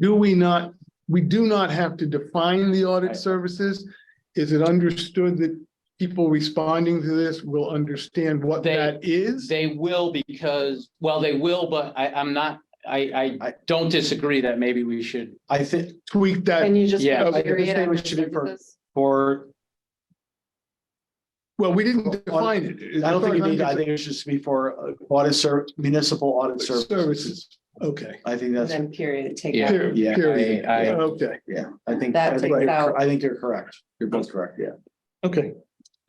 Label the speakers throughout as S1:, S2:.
S1: do we not, we do not have to define the audit services? Is it understood that people responding to this will understand what
S2: They-
S1: that is?
S2: They will because, well, they will, but I, I'm not, I, I don't disagree that maybe we should
S1: I think tweak that,
S3: Can you just?
S2: Yeah.
S3: put
S1: I think
S3: period
S4: this thing
S3: after
S4: should be for-
S3: services?
S2: for,
S1: well, we didn't define it.
S4: I don't think it needs, I think it should just be for uh, audit ser, municipal audit services.
S1: Services, okay.
S4: I think
S3: And
S4: that's,
S3: Then period, take
S2: Yeah.
S3: out.
S1: Period,
S4: Yeah, I-
S1: period.
S2: I-
S1: Okay,
S4: yeah, I think,
S3: That
S4: I think,
S3: takes
S4: you're-
S3: out-
S4: I think you're correct. You're both correct, yeah.
S1: okay,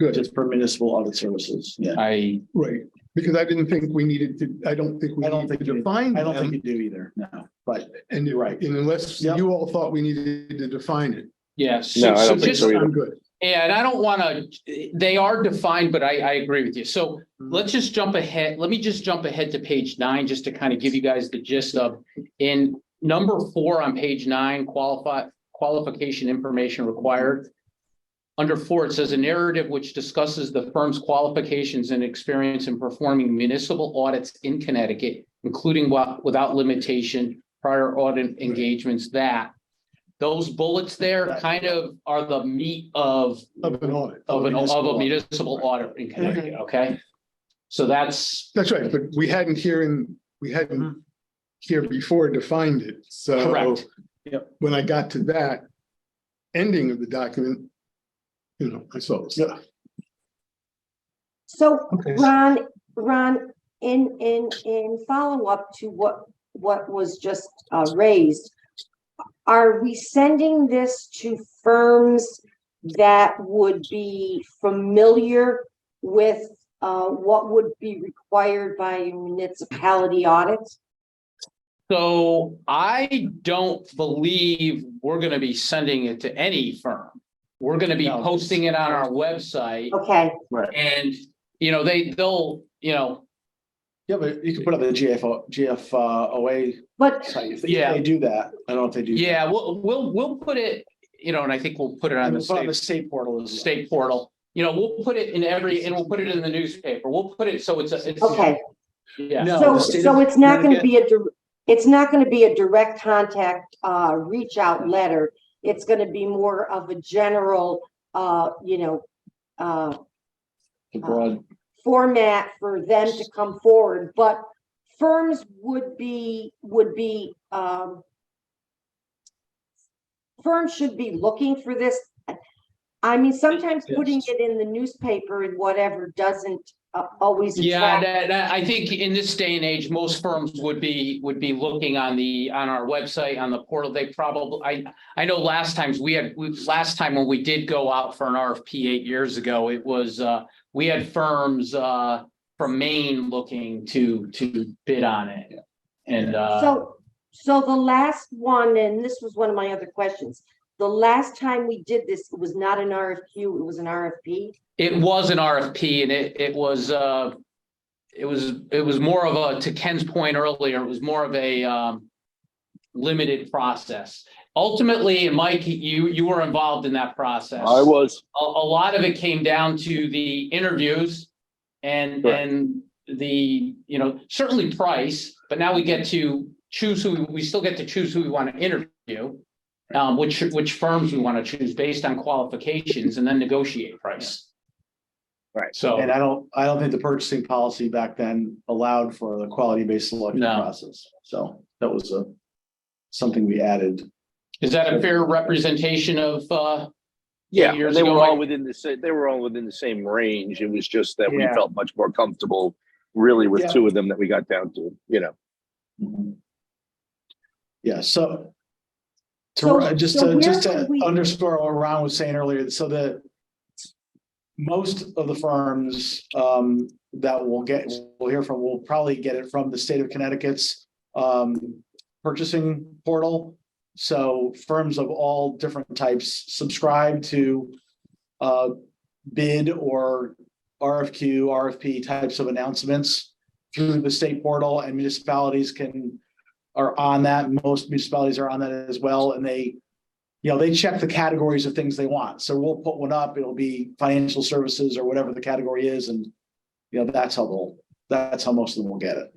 S1: good,
S4: Just for municipal audit services, yeah.
S2: I,
S1: right, because I didn't think we needed to, I don't think we
S4: I don't
S1: need to
S4: think you-
S1: define
S4: I don't think
S1: them.
S4: you do either, no, but
S1: And you're right, and unless
S4: Yep.
S1: you all thought we needed to define it,
S2: yeah.
S5: No, I don't think
S2: just-
S5: so either.
S1: I'm good.
S2: Yeah, and I don't wanna, they are defined, but I, I agree with you. So let's just jump ahead. Let me just jump ahead to page nine, just to kind of give you guys the gist of. In number four on page nine, qualify, qualification information required. Under four, it says a narrative which discusses the firm's qualifications and experience in performing municipal audits in Connecticut, including wa- without limitation, prior audit engagements that. Those bullets there kind of are the meat of
S1: Of an audit.
S2: of an, of a
S4: Municipal. Mm-hmm.
S2: municipal audit in Connecticut, okay? So that's,
S1: That's right, but we hadn't here in, we hadn't here before defined it, so.
S2: Correct.
S4: Yep.
S1: When I got to that ending of the document, you know, I saw this.
S6: So
S1: Okay.
S6: Ron, Ron, in, in, in follow-up to what, what was just uh, raised, are we sending this to firms that would be familiar with uh, what would be required by a municipality audit?
S2: so I don't believe we're gonna be sending it to any firm. We're gonna be
S4: No.
S2: posting it on our website
S6: Okay,
S2: and, you know, they, they'll, you know,
S4: yeah, but you can put up the GFO, GFOA
S6: but,
S4: uh, site. If they-
S2: Yeah.
S4: If they do that, I don't know if they do.
S2: yeah, we'll, we'll, we'll put it, you know, and I think we'll put it
S4: I
S2: on
S4: mean,
S2: the
S4: put on the
S2: state,
S4: state portal. as well.
S2: state portal. You know, we'll put it in every, and we'll put it in the newspaper. We'll put it, so it's, a it's,
S6: okay,
S2: yeah.
S4: No,
S6: so,
S4: the state
S6: so
S4: of
S6: it's not gonna
S4: Connecticut-
S6: be a, dir- it's not gonna be a direct contact, uh, reach out letter. It's gonna be more of a general, uh, you know, uh,
S4: the Broad,
S6: format for them to come forward, but firms would be, would be, um, firms should be looking for this. I mean, sometimes putting it in the newspaper and whatever doesn't uh, always
S2: Yeah,
S6: attract.
S2: that, that- I think in this day and age, most firms would be, would be looking on the, on our website, on the portal. They probably, I, I know last times we had, we, last time when we did go out for an RFP eight years ago, it was, uh, we had firms, uh, from Maine looking to, to bid on it. And, uh,
S6: So, so the last one, and this was one of my other questions, the last time we did this, it was not an RFQ, it was an RFP.
S2: it was an RFP and it, it was, uh, it was, it was more of a, to Ken's point earlier, it was more of a, um, limited process. Ultimately, and Mike, you, you were involved in that process.
S5: I was,
S2: A, a lot of it came down to the interviews and,
S5: Correct.
S2: and the, you know, certainly price, but now we get to choose who, we still get to choose who we want to interview, um, which, which firms we want to choose based on qualifications and then negotiate price.
S5: Right.
S2: So.
S4: and I don't, I don't think the purchasing policy back then allowed for the quality-based selection
S2: No.
S4: process. So that was a, something we added.
S2: Is that a fair representation of, uh,
S5: yeah,
S2: years
S5: and they
S2: ago,
S5: were
S2: like-
S5: all within the same, they were all within the same range. It was just that we
S4: Yeah.
S5: felt much more comfortable really
S4: Yeah.
S5: with two of them that we got down to, you know.
S4: Mhm. Yeah, so.
S6: So-
S4: To, just
S6: so
S4: to,
S6: where
S4: just to
S6: would we-
S4: underscore what Ron was saying earlier, so the. Most of the firms um that will get, we'll hear from, will probably get it from the state of Connecticut's um purchasing portal. So firms of all different types subscribe to uh bid or RFQ, RFP types of announcements through the state portal and municipalities can are on that. Most municipalities are on that as well, and they, you know, they check the categories of things they want. So we'll put one up. It'll be financial services or whatever the category is, and you know, that's how they'll, that's how most of them will get it.